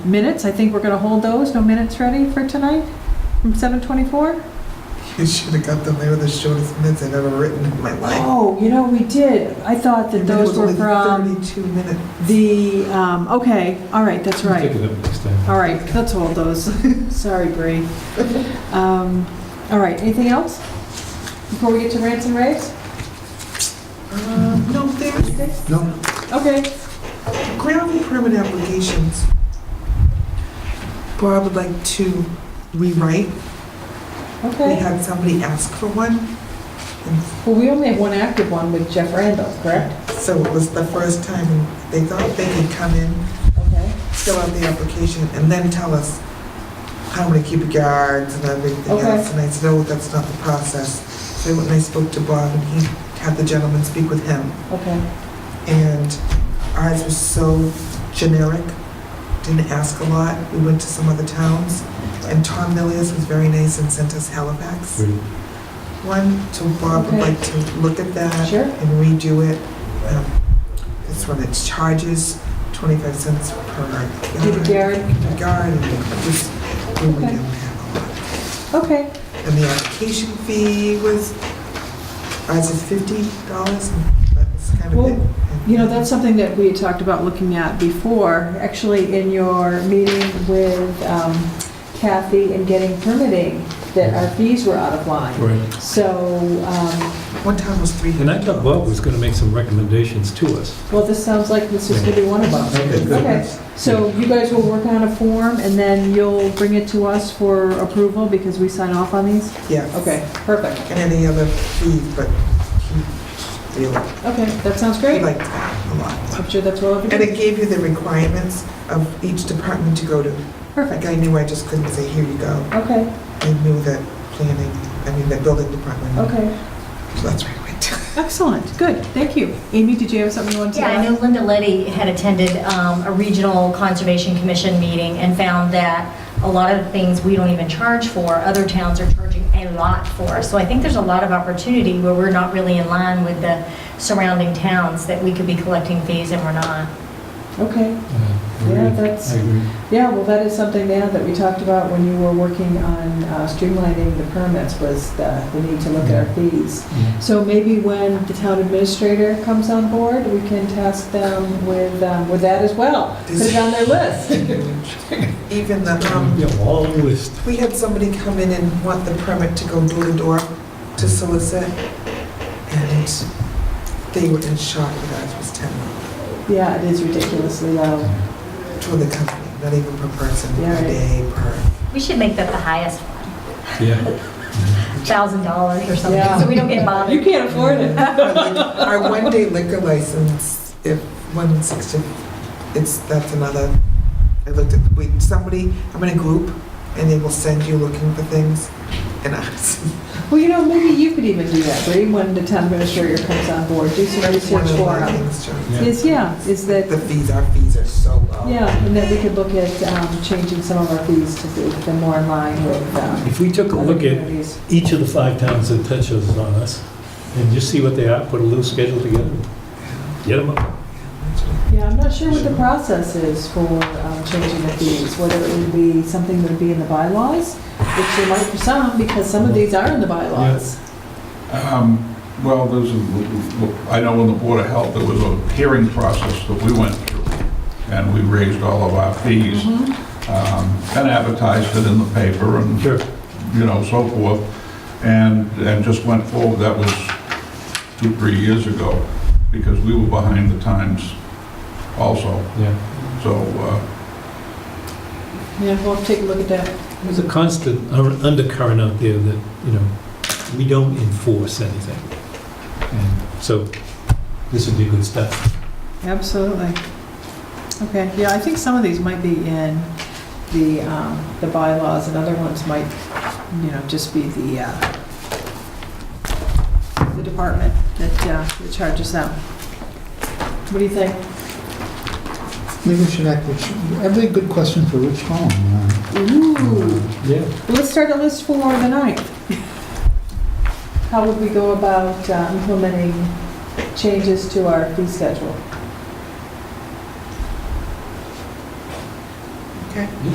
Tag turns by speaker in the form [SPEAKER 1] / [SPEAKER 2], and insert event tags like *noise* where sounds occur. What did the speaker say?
[SPEAKER 1] Minutes, I think we're going to hold those, no minutes ready for tonight from 7:24?
[SPEAKER 2] You should have got them. They were the shortest minutes I've ever written in my life.
[SPEAKER 1] Oh, you know, we did. I thought that
[SPEAKER 2] Your minute
[SPEAKER 1] those
[SPEAKER 2] was
[SPEAKER 1] were
[SPEAKER 2] only
[SPEAKER 1] from
[SPEAKER 2] Thirty-two minutes.
[SPEAKER 1] the, um, okay, all right, that's
[SPEAKER 3] We'll Take
[SPEAKER 1] right.
[SPEAKER 3] it up next time.
[SPEAKER 1] All right, let's hold those. *laughs* Sorry, Bree. Um, All right, anything else before we get to rants and raves? Um,
[SPEAKER 2] No, there's
[SPEAKER 3] No,
[SPEAKER 1] Okay,
[SPEAKER 2] ground permit applications. Bob would like to rewrite. We
[SPEAKER 1] okay.
[SPEAKER 2] had somebody ask for one. And
[SPEAKER 1] Well, we only have one active one with Jeff Randall, correct?
[SPEAKER 2] so it was the first time they thought they could come in,
[SPEAKER 1] Okay.
[SPEAKER 2] fill out the application, and then tell us how many cubic yards and everything
[SPEAKER 1] Okay.
[SPEAKER 2] else. And I said, oh, that's not the process. So when I spoke to Bob and he had the gentleman speak with him,
[SPEAKER 1] Okay.
[SPEAKER 2] and ours was so generic, didn't ask a lot. We went to some other towns, and Tom Millius was very nice and sent us Halifax
[SPEAKER 3] Great.
[SPEAKER 2] one, so Bob would
[SPEAKER 1] Okay.
[SPEAKER 2] like to look at that
[SPEAKER 1] Sure.
[SPEAKER 2] and redo it. Um, This one, it's charges, 25 cents per
[SPEAKER 1] Cubic
[SPEAKER 2] yard.
[SPEAKER 1] yard.
[SPEAKER 2] Yard, and just, we
[SPEAKER 1] Okay.
[SPEAKER 2] didn't have a lot.
[SPEAKER 1] Okay,
[SPEAKER 2] And the application fee was, ours is $50, and that's kind of
[SPEAKER 1] Well,
[SPEAKER 2] it.
[SPEAKER 1] you know, that's something that we had talked about looking at before, actually in your meeting with um, Kathy and getting permitting, that our fees were out of line.
[SPEAKER 3] Right.
[SPEAKER 1] So, um,
[SPEAKER 2] One time was three.
[SPEAKER 3] And I thought Bob was going to make some recommendations to us.
[SPEAKER 1] well, this sounds like this is gonna be one of them.
[SPEAKER 3] Okay, good.
[SPEAKER 1] Okay, so you guys will work on a form and then you'll bring it to us for approval because we sign off on these?
[SPEAKER 2] Yeah.
[SPEAKER 1] Okay, perfect.
[SPEAKER 2] And any other fee, but he really,
[SPEAKER 1] Okay, that sounds
[SPEAKER 2] he
[SPEAKER 1] great.
[SPEAKER 2] liked that a lot.
[SPEAKER 1] I'm sure that's well
[SPEAKER 2] And
[SPEAKER 1] everybody.
[SPEAKER 2] it gave you the requirements of each department to go to. Like,
[SPEAKER 1] Perfect,
[SPEAKER 2] I knew I just couldn't say, here you go.
[SPEAKER 1] okay,
[SPEAKER 2] I knew that planning, I mean, the building department.
[SPEAKER 1] okay.
[SPEAKER 2] So that's where I
[SPEAKER 1] *laughs*
[SPEAKER 2] went to.
[SPEAKER 1] Excellent, good, thank you. Amy, did you have something you wanted to
[SPEAKER 4] Yeah, I
[SPEAKER 1] add?
[SPEAKER 4] know Linda Letty had attended um, a regional conservation commission meeting and found that a lot of the things we don't even charge for, other towns are charging a lot for. So I think there's a lot of opportunity where we're not really in line with the surrounding towns, that we could be collecting fees and we're not.
[SPEAKER 1] Okay, Yeah,
[SPEAKER 3] Yeah,
[SPEAKER 1] that's-
[SPEAKER 3] I agree.
[SPEAKER 1] yeah, well, that is something now that we talked about when you were working on uh, streamlining the permits was the, the need to look at our fees.
[SPEAKER 3] Yeah.
[SPEAKER 1] So maybe when the town administrator comes on board, we can task them with, um, with that as well. Put it on their list.
[SPEAKER 2] Even the, um,
[SPEAKER 3] Yeah, all the list.
[SPEAKER 2] we had somebody come in and want the permit to go door to door to solicit. And they were in shock that ours was ten dollars
[SPEAKER 1] Yeah, it is ridiculously low.
[SPEAKER 2] for the company, not even per person,
[SPEAKER 1] Yeah,
[SPEAKER 2] per
[SPEAKER 1] right.
[SPEAKER 2] day, per.
[SPEAKER 4] We should make that the highest one,
[SPEAKER 3] Yeah,
[SPEAKER 4] $1,000 or
[SPEAKER 1] Yeah.
[SPEAKER 4] something, so we don't get bothered.
[SPEAKER 1] You can't afford it.
[SPEAKER 2] Our lic- *laughs* Our one-day liquor license, if one in sixty, it's, that's another, I looked at, we, somebody, I'm in a group, and they will send you looking for things, and *laughs* ours
[SPEAKER 1] Well, you know, maybe you could even do that, Bree, when the town administrator comes on board, do some
[SPEAKER 2] One
[SPEAKER 1] research
[SPEAKER 2] of
[SPEAKER 1] for
[SPEAKER 2] my
[SPEAKER 1] them.
[SPEAKER 2] things, John.
[SPEAKER 3] Yeah.
[SPEAKER 1] Is, yeah, is that
[SPEAKER 2] The fees, our fees are so low.
[SPEAKER 1] Yeah, and then we could look at um, changing some of our fees to be the more in line with. um,
[SPEAKER 3] if we took a
[SPEAKER 1] other
[SPEAKER 3] look at
[SPEAKER 1] communities.
[SPEAKER 3] each of the five towns that touches on us, and just see what they are, put a little schedule together, get them up.
[SPEAKER 1] Yeah, I'm not sure what the process is for um, changing the fees, whether it would be something that would be in the bylaws, which there might be some, because some of these are in the bylaws.
[SPEAKER 5] Um, Well, there's, a- I know in the Board of Health, there was a hearing process that we went through, and we raised all of our fees
[SPEAKER 1] Mhm.
[SPEAKER 5] um, and advertised it in the paper and,
[SPEAKER 3] Sure.
[SPEAKER 5] you know, so forth, and, and just went forward. That was two, three years ago, because we were behind the times also.
[SPEAKER 3] Yeah,
[SPEAKER 5] So, uh,
[SPEAKER 1] Yeah, we'll have to take a look at that.
[SPEAKER 3] there's a constant un- undercurrent out there that, you know, we don't enforce anything. And so this would be good stuff.
[SPEAKER 1] Absolutely. Okay, yeah, I think some of these might be in the, um, the bylaws, and other ones might, you know, just be the, uh, the department that, uh, that charges them. What do you think?
[SPEAKER 6] Maybe we should act, which, that'd be a good question for Rich Holland. uh,
[SPEAKER 1] Ooh,
[SPEAKER 3] Yeah.
[SPEAKER 1] well, let's start a list for the ninth. How would we go about uh, implementing changes to our fee schedule?
[SPEAKER 2] Okay.